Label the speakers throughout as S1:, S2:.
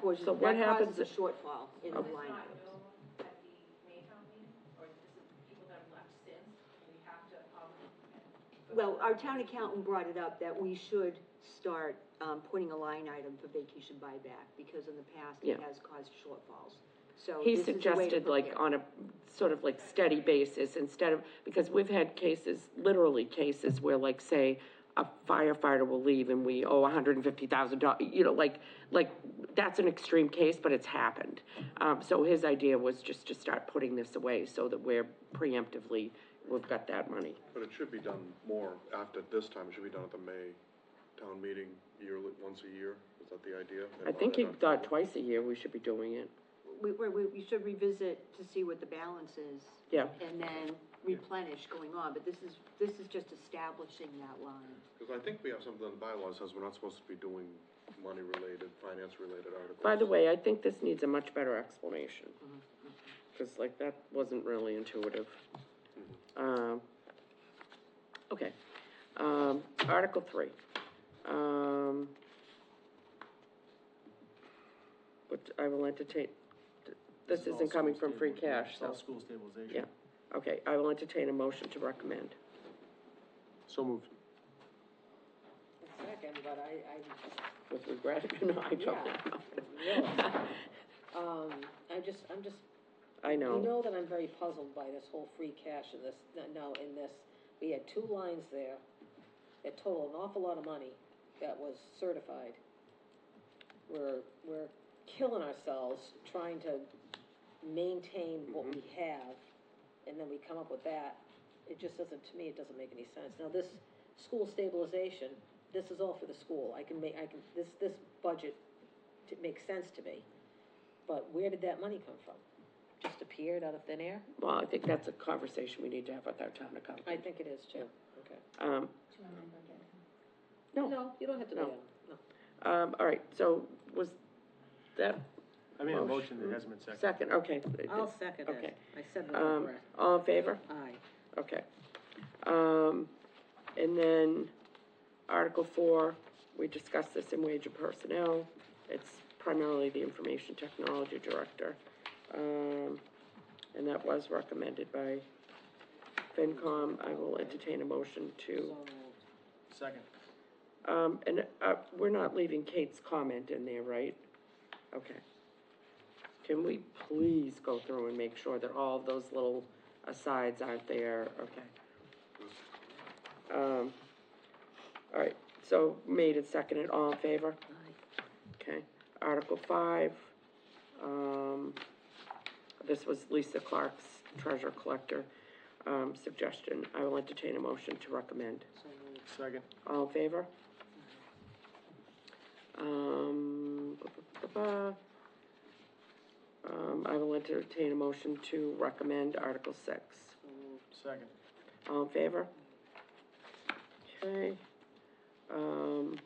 S1: portion,
S2: So what
S1: that caused
S2: happens-
S1: the shortfall in the
S2: Okay.
S1: line
S3: not
S1: items.
S3: known at the May town meeting, or this is people that have left since, we have to, um,
S1: Well, our town accountant brought it up that we should start, um, putting a line item for vacation buyback, because in the past,
S2: Yeah.
S1: it has caused shortfalls, so.
S2: He
S1: this is a way to
S2: suggested like
S1: prepare.
S2: on a sort of like steady basis instead of, because we've had cases, literally cases where like, say, a firefighter will leave and we owe hundred and fifty thousand dollars, you know, like, like, that's an extreme case, but it's happened. Um, so his idea was just to start putting this away so that we're preemptively, we've got that money.
S4: But it should be done more after this time, it should be done at the May town meeting yearly, once a year, is that the idea?
S2: I think he thought twice a year we should be doing it.
S1: We, we, we we should revisit to see what the balance is.
S2: Yeah.
S1: And then replenish going on, but this is, this is just establishing that line.
S4: Because I think we have something in the bylaws says we're not supposed to be doing money-related, finance-related articles.
S2: By the way, I think this needs a much better explanation. Because like, that wasn't really intuitive. Um, okay. Um, Article three. Um, which I will entertain, this isn't coming from free cash, so,
S5: All school stabilization.
S2: yeah. Okay, I will entertain a motion to recommend.
S4: So moved.
S6: Second, but I,
S2: With regret, no, I don't.
S6: I, um, I just, I'm just,
S2: I
S6: you
S2: know,
S6: know that I'm very puzzled by this whole free cash and this, now in this, we had two lines there that total an awful lot of money that was certified. We're, we're killing ourselves trying to maintain what we have, and then we come up with that. It just doesn't, to me, it doesn't make any sense. Now, this school stabilization, this is all for the school. I can make, I can, this, this budget t- makes sense to me. But where did that money come from? Just appeared out of thin air?
S2: well, I think that's a conversation we need to have with our town accountant.
S6: I think it is too. Okay.
S2: Um,
S3: to remember again.
S6: No, you don't have to
S2: No.
S6: do that. No.
S2: um, all right, so was that
S5: I made a motion that hasn't been seconded.
S2: second, okay.
S6: I'll second
S2: Okay.
S6: it. I said with
S2: Um,
S6: regret.
S2: all in favor?
S6: Aye.
S2: Okay. Um, and then Article Four, we discussed this in wage and personnel. It's primarily the information technology director. Um, and that was recommended by FinCom. I will entertain a motion to,
S6: So moved.
S5: Second.
S2: um, and, uh, we're not leaving Kate's comment in there, right? Okay. Can we please go through and make sure that all of those little asides aren't there? Okay. Um, all right, so made and seconded, all in favor? Okay, Article five, um, this was Lisa Clark's treasure collector, um, suggestion. I will entertain a motion to recommend.
S5: Second.
S2: All in favor? Um, ba, ba, ba, ba. um, I will entertain a motion to recommend Article six.
S5: Second.
S2: All in favor? Okay. Um,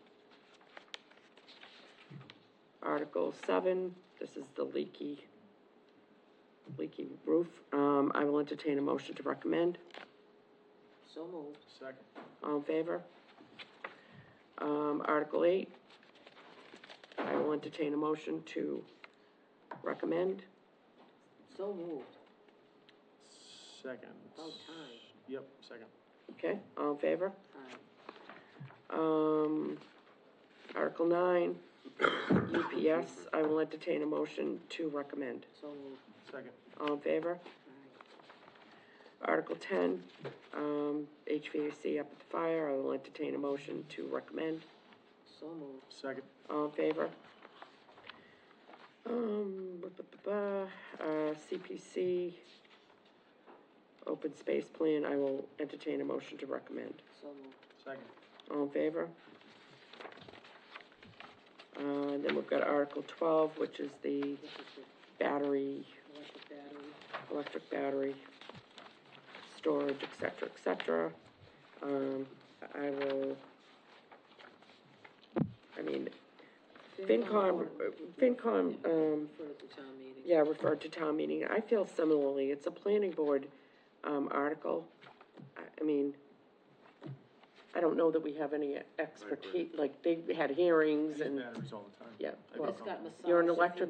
S2: Article seven, this is the leaky, leaky roof. Um, I will entertain a motion to recommend.
S6: So moved.
S5: Second.
S2: All in favor? Um, Article eight, I will entertain a motion to recommend.
S6: So moved.
S5: Second.
S6: About time.
S5: Yep, second.
S2: Okay, all in favor?
S6: Aye.
S2: Um, Article nine, UPS, I will entertain a motion to recommend.
S6: So moved.
S5: Second.
S2: All in favor? Article ten, um, HVAC up at the fire, I will entertain a motion to recommend.
S6: So moved.
S5: Second.
S2: All in favor? Um, ba, ba, ba, ba, uh, CPC, open space plan, I will entertain a motion to recommend.
S6: So moved.
S5: Second.
S2: All in favor? Uh, and then we've got Article twelve, which is the
S6: This is
S2: battery,
S6: the electric battery.
S2: electric battery, storage, et cetera, et cetera. Um, I will, I mean, FinCom, uh, FinCom, um,
S6: Refer to town meeting.
S2: yeah, referred to town meeting. I feel similarly. It's a planning board, um, article. I, I mean, I don't know that we have any expertise, like, they had hearings and,
S5: Batteries all the time.
S2: yeah,
S5: I
S2: well,
S5: do
S6: It's got massage.
S2: you're an
S6: if you
S2: electric